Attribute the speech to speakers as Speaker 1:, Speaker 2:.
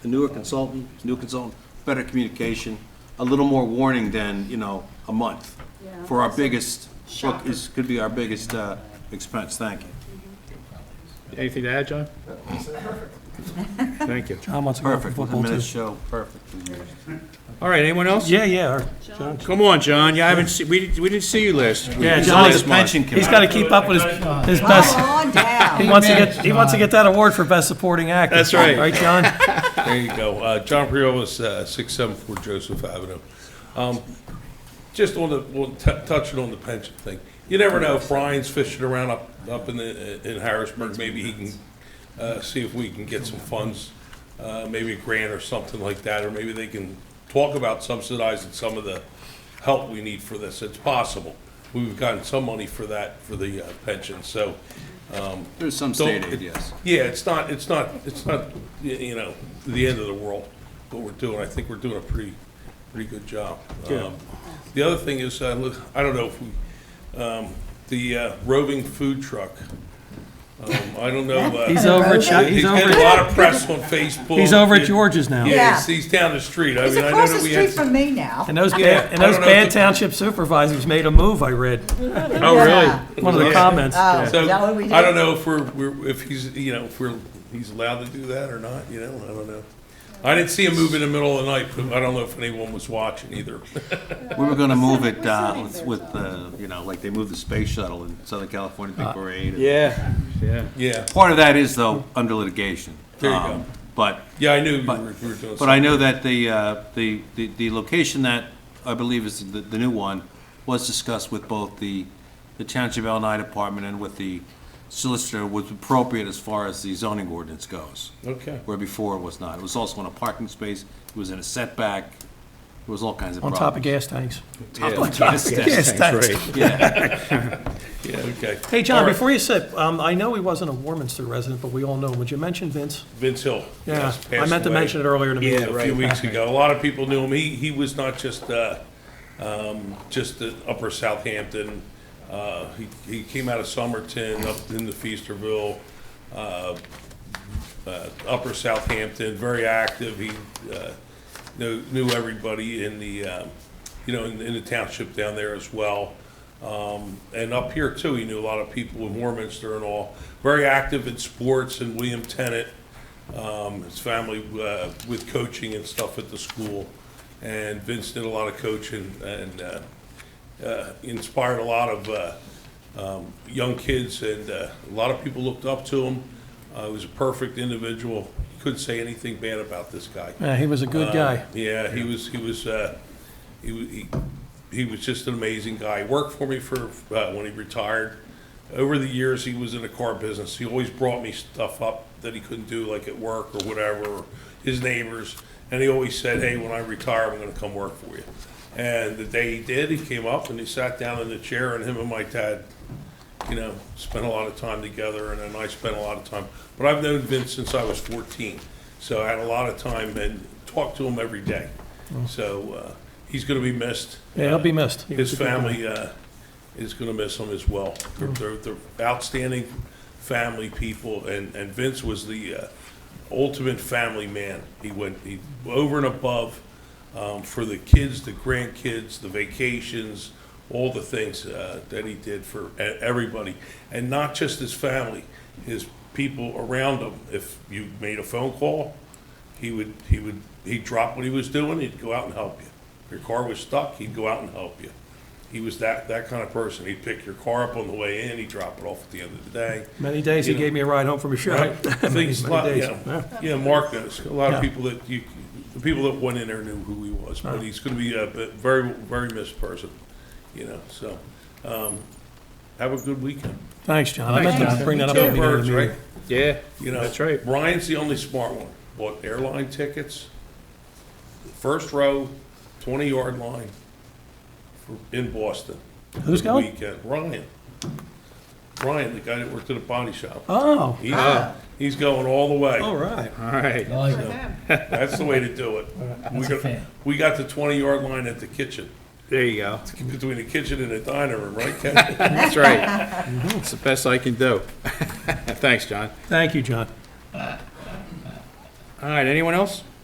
Speaker 1: a newer consultant, new consultant, better communication, a little more warning than, you know, a month.
Speaker 2: Yeah.
Speaker 1: For our biggest, look, is, could be our biggest uh, expense, thank you.
Speaker 3: Anything to add, John? Thank you.
Speaker 4: John wants to go for
Speaker 1: Perfect, with the
Speaker 4: football
Speaker 1: minutes
Speaker 4: too.
Speaker 1: show, perfect.
Speaker 3: All right, anyone else?
Speaker 4: Yeah, yeah, or- John.
Speaker 3: Come on, John, you haven't, se- we, we didn't see you last.
Speaker 4: Yeah,
Speaker 3: last
Speaker 4: John's-
Speaker 3: month.
Speaker 1: pension
Speaker 4: He's got to keep up with his, his best,
Speaker 2: Come on
Speaker 4: he
Speaker 2: down.
Speaker 4: wants to get, he wants to get that award for best supporting actor.
Speaker 3: That's right.
Speaker 4: Right, John?
Speaker 5: There you go. Uh, John Priolas, uh, 674 Joseph Avenue. Um, Just on the, well, t- touching on the pension thing, you never know, if Brian's fishing around up, up in the, in Harrisburg, maybe he can uh, see if we can get some funds, uh, maybe a grant or something like that, or maybe they can talk about subsidizing some of the help we need for this. It's possible. We've gotten some money for that, for the uh, pension, so.
Speaker 1: There's some
Speaker 5: don't-
Speaker 1: state aid, yes.
Speaker 5: Yeah, it's not, it's not, it's not, y- you know, the end of the world, what we're doing. I think we're doing a pretty, pretty good job. Um, The other thing is, I look, I don't know if we, um, the uh, roving food truck, um, I don't know. uh,
Speaker 4: He's over at, Chi-
Speaker 5: He's
Speaker 4: he's
Speaker 5: getting
Speaker 4: over,
Speaker 5: a
Speaker 4: at-
Speaker 5: lot of press on Facebook.
Speaker 4: he's over at
Speaker 5: Yeah,
Speaker 4: George's now.
Speaker 5: Yeah, he's- he's down the street. I
Speaker 2: He's
Speaker 5: mean, I know
Speaker 2: across the
Speaker 5: that we
Speaker 2: street
Speaker 5: had.
Speaker 2: from me now.
Speaker 4: And those
Speaker 5: Yeah,
Speaker 4: bad, and
Speaker 5: I
Speaker 4: those
Speaker 5: don't know if
Speaker 4: bad
Speaker 5: the-
Speaker 4: township supervisors made a move, I read.
Speaker 3: Oh, really?
Speaker 4: One of the
Speaker 5: Yeah.
Speaker 4: comments.
Speaker 2: Oh, is
Speaker 5: So,
Speaker 2: that what we did?
Speaker 5: I don't know if we're, we're, if he's, you know, if we're, he's allowed to do that or not, you know, I don't know. I didn't see him move in the middle of the night, but I don't know if anyone was watching either.
Speaker 1: We were gonna move it uh, with- with, uh, you know, like they moved the space shuttle in Southern California,
Speaker 5: Uh,
Speaker 1: Big Parade.
Speaker 3: Yeah, yeah.
Speaker 5: Yeah,
Speaker 1: Part of that is though, under litigation.
Speaker 5: There you go.
Speaker 1: Um, But
Speaker 5: yeah, I knew we
Speaker 1: But-
Speaker 5: were, we were doing
Speaker 1: But I
Speaker 5: something.
Speaker 1: know that the, uh, the, the the location that I believe is the, the new one was discussed with both the, the Township L9 Department and with the solicitor was appropriate as far as the zoning ordinance goes,
Speaker 5: Okay.
Speaker 1: where before it was not. It was also in a parking space, it was in a setback, it was all kinds of
Speaker 4: On
Speaker 1: problems.
Speaker 4: top of gas tanks.
Speaker 1: Yes,
Speaker 4: tanks.
Speaker 1: yeah.
Speaker 5: Yeah, okay.
Speaker 4: Hey, John,
Speaker 5: All right,
Speaker 4: before you slip, um, I know he wasn't a Warminster resident, but we all know him. Would you mention Vince?
Speaker 5: Vince Hill.
Speaker 4: Yeah,
Speaker 5: yes,
Speaker 4: I
Speaker 5: passed
Speaker 4: meant to
Speaker 5: away.
Speaker 4: mention it earlier in the meeting.
Speaker 5: a few weeks ago. A lot of people knew him. He, he was not just, uh, um, just the upper Southampton. Uh, he, he came out of Somerton, up into Feasterville, uh, uh, upper Southampton, very active. He, uh, knew, knew everybody in the, um, you know, in, in the township down there as well. Um, and up here too, he knew a lot of people in Warminster and all. Very active in sports and William Tennant, um, his family uh, with coaching and stuff at the school. And Vince did a lot of coaching and uh, uh, inspired a lot of uh, um, young kids, and uh, a lot of people looked up to him. Uh, He was a perfect individual. Couldn't say anything bad about this guy.
Speaker 4: Yeah, he was a good
Speaker 5: Uh,
Speaker 4: guy.
Speaker 5: Yeah, he was, he was, uh, he, wa- he, he was just an amazing guy. He Worked for me for, uh, when he retired. Over the years, he was in the car business. He always brought me stuff up that he couldn't do, like at work or whatever, or his neighbors. And he always said, hey, when I retire, I'm gonna come work for you. And the day he did, he came up and he sat down in the chair and him and my dad you know, spent a lot of time together, and then I spent a lot of time. But I've known Vince since I was 14, so I had a lot of time and talked to him every day. So uh, he's going to be missed.
Speaker 4: Oh. Yeah, he'll be missed. He was
Speaker 5: His
Speaker 4: a good guy.
Speaker 5: family uh, is going to miss him as well. They're, they're,
Speaker 4: Mm-hmm.
Speaker 5: they're outstanding family people, and, and Vince was the uh, ultimate family man. He went he, over and above um, for the kids, the grandkids, the vacations, all the things uh, that he did for e- everybody, and not just his family, his people around him. If you made a phone call, he would, he would, he'd drop what he was doing, he'd go out and help you. If your car was stuck, he'd go out and help you. He was that, that kind of person. He'd pick your car up on the way in, he'd drop it off at the end of the day.
Speaker 4: Many days he
Speaker 5: You know.
Speaker 4: gave me a ride home from a show.
Speaker 5: Right? Things, a lot-
Speaker 4: days,
Speaker 5: yeah, yeah, Mark knows, a lot
Speaker 4: Yeah.
Speaker 5: of people that you, the people that went in there knew who he was, but he's gonna be a b- very, very missed person, you know, so, um, have a good weekend.
Speaker 4: Thanks, John. I meant to bring that up. at the
Speaker 5: Two
Speaker 4: beginning of
Speaker 5: birds,
Speaker 4: the meeting.
Speaker 5: right?
Speaker 3: Yeah,
Speaker 5: You know,
Speaker 3: that's right.
Speaker 5: Ryan's the only smart one. Bought airline tickets, first row, twenty yard line for, in Boston.
Speaker 4: Who's
Speaker 5: for the
Speaker 4: going?
Speaker 5: Weekend, Ryan. Ryan, the guy that worked at a body shop.
Speaker 4: Oh,
Speaker 5: He's, he's going all the
Speaker 4: all
Speaker 5: way.
Speaker 4: right.
Speaker 3: All right.
Speaker 5: That's the way to do it. We got, we got the twenty yard line at the kitchen,
Speaker 3: There you go.
Speaker 5: between the kitchen and the diner room, right, Ken?
Speaker 3: That's right. It's the best I can do. Thanks, John.
Speaker 4: Thank you, John.
Speaker 3: All right, anyone else?